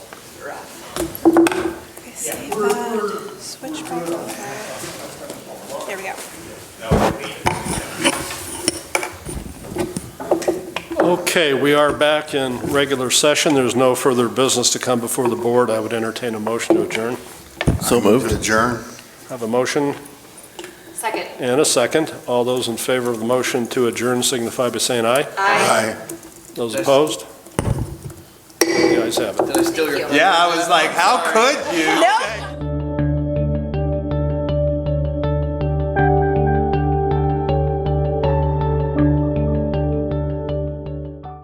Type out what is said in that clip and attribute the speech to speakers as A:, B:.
A: Save bond, switch back over. There we go.
B: Okay, we are back in regular session. There's no further business to come before the board. I would entertain a motion to adjourn.
C: So moved. Adjourn.
B: Have a motion
D: Second.
B: and a second. All those in favor of the motion to adjourn signify by saying aye.
C: Aye.
B: Those opposed? The ayes have it.
E: Did I steal your?
D: Thank
E: thunder?
F: Yeah, I was like, how could you?
A: No,